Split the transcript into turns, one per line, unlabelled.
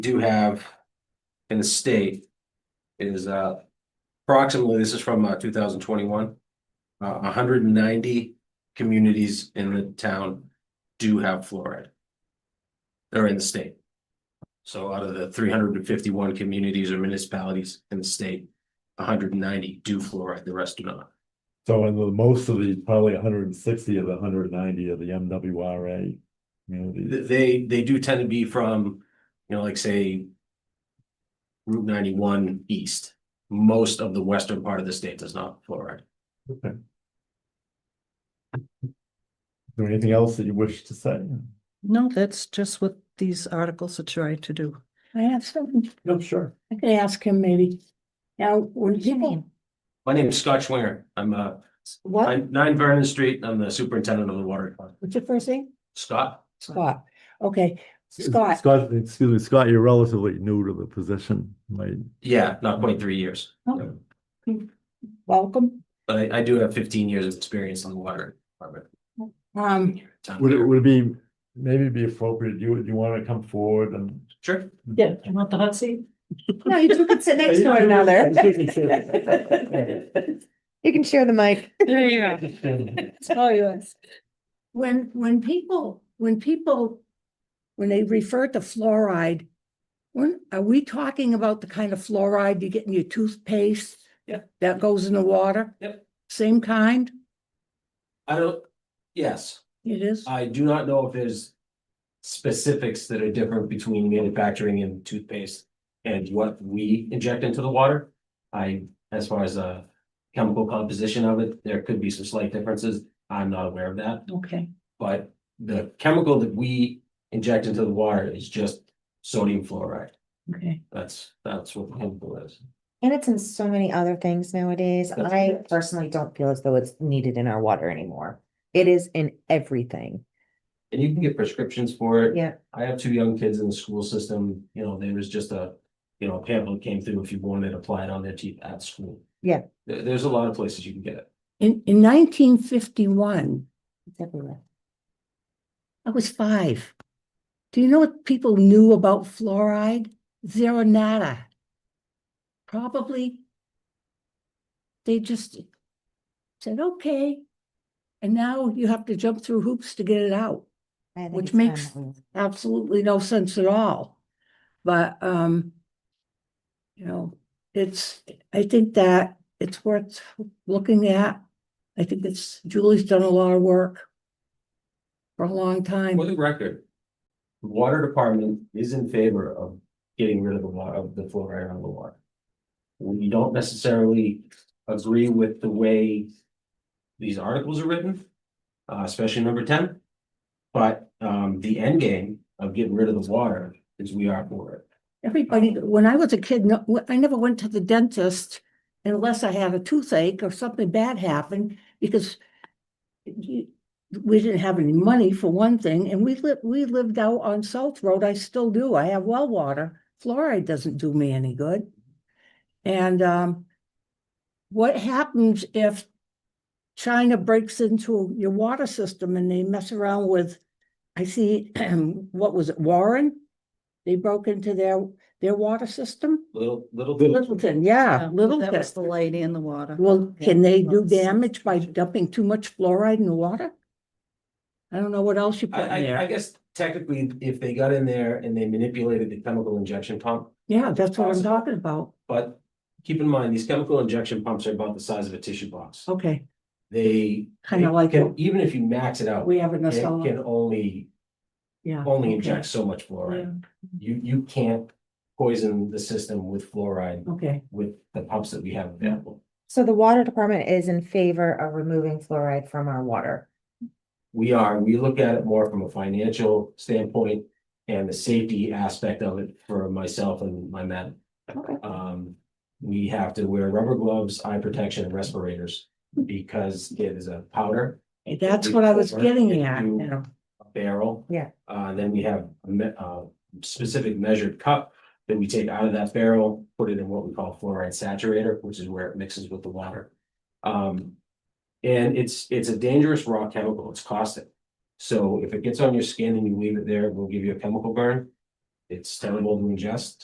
do have in the state is uh approximately, this is from uh two thousand twenty-one. Uh, hundred and ninety communities in the town do have fluoride. They're in the state. So out of the three hundred and fifty-one communities or municipalities in the state, hundred and ninety do fluoride, the rest do not.
So in the, most of these, probably hundred and sixty of the hundred and ninety of the MWRA communities.
Th- They, they do tend to be from, you know, like say. Route ninety-one east, most of the western part of the state does not fluoride.
Okay. Is there anything else that you wish to say?
No, that's just what these articles are trying to do.
I have something,
No, sure.
I could ask him maybe. Now, when people,
My name is Scott Schwinger, I'm uh,
what,
I'm nine Vernon Street, I'm the superintendent of the water department.
what's your first name?
Scott,
Scott, okay, Scott,
Scott, excuse me, Scott, you're relatively new to the position, right?
yeah, not quite three years,
Oh. welcome.
but I, I do have fifteen years of experience on the water department.
Um,
Town
Would it,
here.
would it be, maybe be appropriate, do you, do you wanna come forward and?
Sure,
yeah,
You want the hot seat?
No, you two can sit next to one another. You can share the mic.
There you go. It's all yours.
when, when people, when people, when they refer to fluoride, when, are we talking about the kind of fluoride you get in your toothpaste?
Yeah.
That goes in the water?
Yep.
Same kind?
I don't, yes,
It is?
Uh,
I do not know if there's. Specifics that are different between manufacturing and toothpaste and what we inject into the water. I, as far as uh chemical composition of it, there could be some slight differences, I'm not aware of that.
Okay,
But the chemical that we inject into the water is just sodium fluoride.
okay.
That's, that's what the chemical is.
And it's in so many other things nowadays.
That's
I
correct.
personally don't feel as though it's needed in our water anymore. It is in everything.
And you can get prescriptions for it.
Yeah.
I have two young kids in the school system, you know, there was just a, you know, pamphlet came through if you wanted to apply it on their teeth at school.
Yeah.
There- there's a lot of places you can get it.
In, in nineteen fifty-one,
It's everywhere.
I was five. Do you know what people knew about fluoride? Zero nada. Probably. They just said, okay. And now you have to jump through hoops to get it out.
I think
Which
it's time
makes-
that we-
Absolutely no sense at all. But, um, you know, it's, I think that it's worth looking at. I think it's, Julie's done a lot of work for a long time.
For the record, the water department is in favor of getting rid of the water, of the fluoride on the water. We don't necessarily agree with the way these articles are written, uh, especially number ten. But, um, the end game of getting rid of the water is we are for it.
Everybody, when I was a kid, no, wh- I never went to the dentist unless I had a toothache or something bad happened because you- we didn't have any money for one thing, and we lived, we lived out on South Road. I still do. I have well water. Fluoride doesn't do me any good. And um, what happens if China breaks into your water system and they mess around with, I see, what was it, Warren? They broke into their, their water system?
Little, little.
Littleton, yeah,
Oh, Uh, That was the
Littleton.
lady in the water.
Well,
Yeah,
can they do
lots of
damage by
situation.
dumping too much fluoride in the water? I don't know what else you
I,
put in
I, I
there.
guess technically, if they got in there and they manipulated the chemical injection pump,
Yeah, that's what I'm
Possible.
talking about.
but keep in mind, these chemical injection pumps are about the size of a tissue box.
Okay,
They.
Kinda
they
like
can-
what-
Even if you max it out,
we have enough.
it
solid-
can only,
Yeah.
only
okay,
inject so much fluoride. You, you can't poison the system with fluoride
Okay,
with the pumps that we have available.
So the water department is in favor of removing fluoride from our water.
We are, we look at it more from a financial standpoint and the safety aspect of it for myself and my men.
Okay.
Um, we have to wear rubber gloves, eye protection, and respirators
Hmm.
because it is a powder.
that's what I was
Or
getting
if
at,
you-
you know.
a barrel.
Yeah.
Uh, then we have a me- uh, specific measured cup that we take out of that barrel, put it in what we call fluoride saturator, which is where it mixes with the water. Um, and it's, it's a dangerous raw chemical, it's caustic. So if it gets on your skin and you leave it there, it will give you a chemical burn. It's terrible to ingest.